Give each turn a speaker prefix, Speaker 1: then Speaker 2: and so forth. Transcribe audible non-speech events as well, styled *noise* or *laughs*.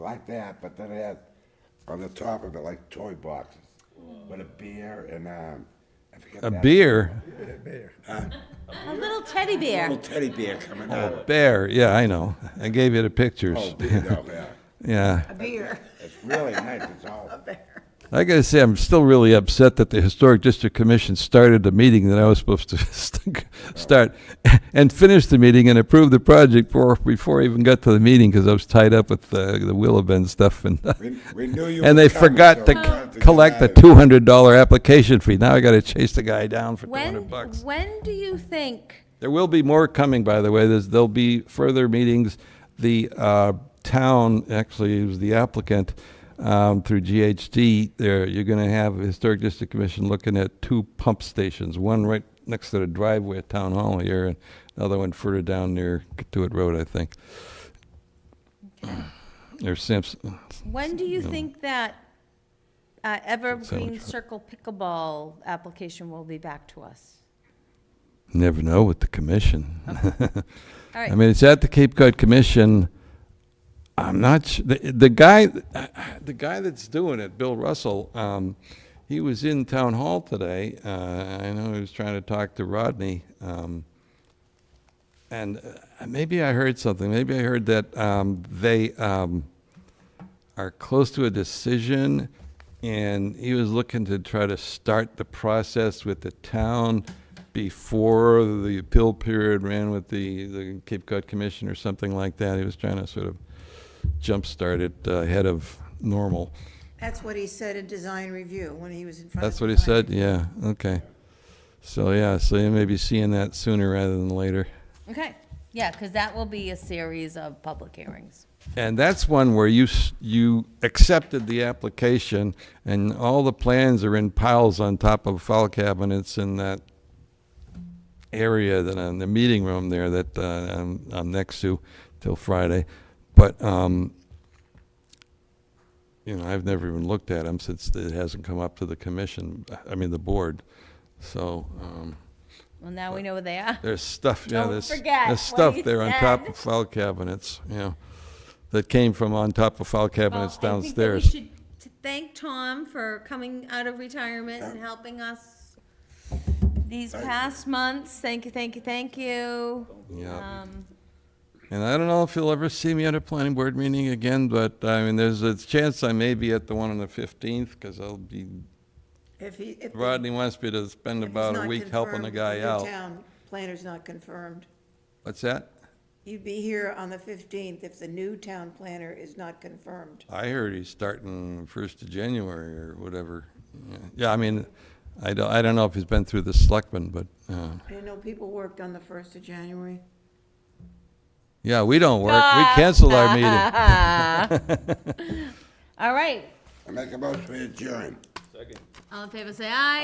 Speaker 1: like that, but then it had on the top of it like toy boxes with a beer and um, I forget
Speaker 2: A
Speaker 1: that-
Speaker 2: beer?
Speaker 3: A little teddy bear.
Speaker 1: little teddy bear coming out.
Speaker 2: A bear, yeah, I know. I gave you the pictures.
Speaker 1: Oh, beer, no, yeah.
Speaker 2: Yeah.
Speaker 4: Beer.
Speaker 1: It's really nice. It's all
Speaker 2: I gotta say, I'm still really upset that the Historic District Commission started the meeting that I was supposed to *laughs* st- start and finished the meeting and approved the project before, before I even got to the meeting because I was tied up with the, the Willabend stuff and, *laughs*
Speaker 1: We, we knew you.
Speaker 2: and
Speaker 1: were
Speaker 2: they
Speaker 1: coming,
Speaker 2: forgot
Speaker 1: so
Speaker 2: to
Speaker 1: we
Speaker 2: c-
Speaker 1: wanted
Speaker 2: collect the
Speaker 1: get out of
Speaker 2: two hundred dollar application fee. Now I gotta chase the guy down for two
Speaker 3: When,
Speaker 2: hundred bucks.
Speaker 3: when do you think,
Speaker 2: There will be more coming, by the way. There's, there'll be further meetings. The uh, town, actually, it was the applicant um, through GHD. There, you're going to have a historic district commission looking at two pump stations. One right next to the driveway at Town Hall here, and another one further down near Katuitt Road, I think. Or Sampson.
Speaker 3: when do you think that uh, Evergreen
Speaker 2: Sandwich.
Speaker 3: Circle pickleball application will be back to us?
Speaker 2: Never know with the commission. *laughs*
Speaker 3: All
Speaker 2: I
Speaker 3: right,
Speaker 2: mean, it's at the Cape Cod Commission. I'm not su- the, the guy, the guy that's doing it, Bill Russell. Um, he was in town hall today. Uh, I know he was trying to talk to Rodney. Um, and uh, maybe I heard something. Maybe I heard that um, they um, are close to a decision, and he was looking to try to start the process with the town before the appeal period ran with the, the Cape Cod Commission or something like that. He was trying to sort of jumpstart it uh, ahead of normal.
Speaker 4: That's what he said in design review when he was in front of.
Speaker 2: That's what he
Speaker 4: design.
Speaker 2: said? Yeah, okay. So, yeah, so you may be seeing that sooner rather than later.
Speaker 3: okay, yeah, because that will be a series of public hearings.
Speaker 2: And that's one where you, s- you accepted the application and all the plans are in piles on top of file cabinets in that area that, in the meeting room there that uh, I'm, I'm next to till Friday. But, um, you know, I've never even looked at them since it hasn't come up to the commission, I mean, the board. So, um,
Speaker 3: Well, now we know where they are.
Speaker 2: there's stuff, yeah,
Speaker 3: Don't
Speaker 2: there's,
Speaker 3: forget
Speaker 2: there's
Speaker 3: what
Speaker 2: stuff
Speaker 3: he
Speaker 2: there on top
Speaker 3: said.
Speaker 2: of file cabinets, yeah. That came from on top of file
Speaker 3: Well,
Speaker 2: cabinets
Speaker 3: I think that we
Speaker 2: downstairs.
Speaker 3: should t- Thank Tom for coming out of retirement and helping us these past months. Thank you, thank you, thank you.
Speaker 2: Yeah.
Speaker 3: Um,
Speaker 2: And I don't know if you'll ever see me at a planning board meeting again, but I mean, there's a chance I may be at the one on the fifteenth, because I'll be,
Speaker 4: If he, if. the-
Speaker 2: Rodney wants me to spend
Speaker 4: if he's
Speaker 2: about a
Speaker 4: not
Speaker 2: week helping the
Speaker 4: confirmed,
Speaker 2: guy
Speaker 4: if the
Speaker 2: out.
Speaker 4: town planner's not confirmed.
Speaker 2: What's that?
Speaker 4: You'd be here on the fifteenth if the new town planner is not confirmed.
Speaker 2: I heard he's starting first of January or whatever. Yeah. Yeah, I mean, I don't, I don't know if he's been through the selectmen, but, uh,
Speaker 4: I didn't know people worked on the first of January.
Speaker 2: yeah, we don't work, we cancel our meeting.
Speaker 3: All right,
Speaker 1: I make a motion to adjourn.
Speaker 3: all in favor, say aye.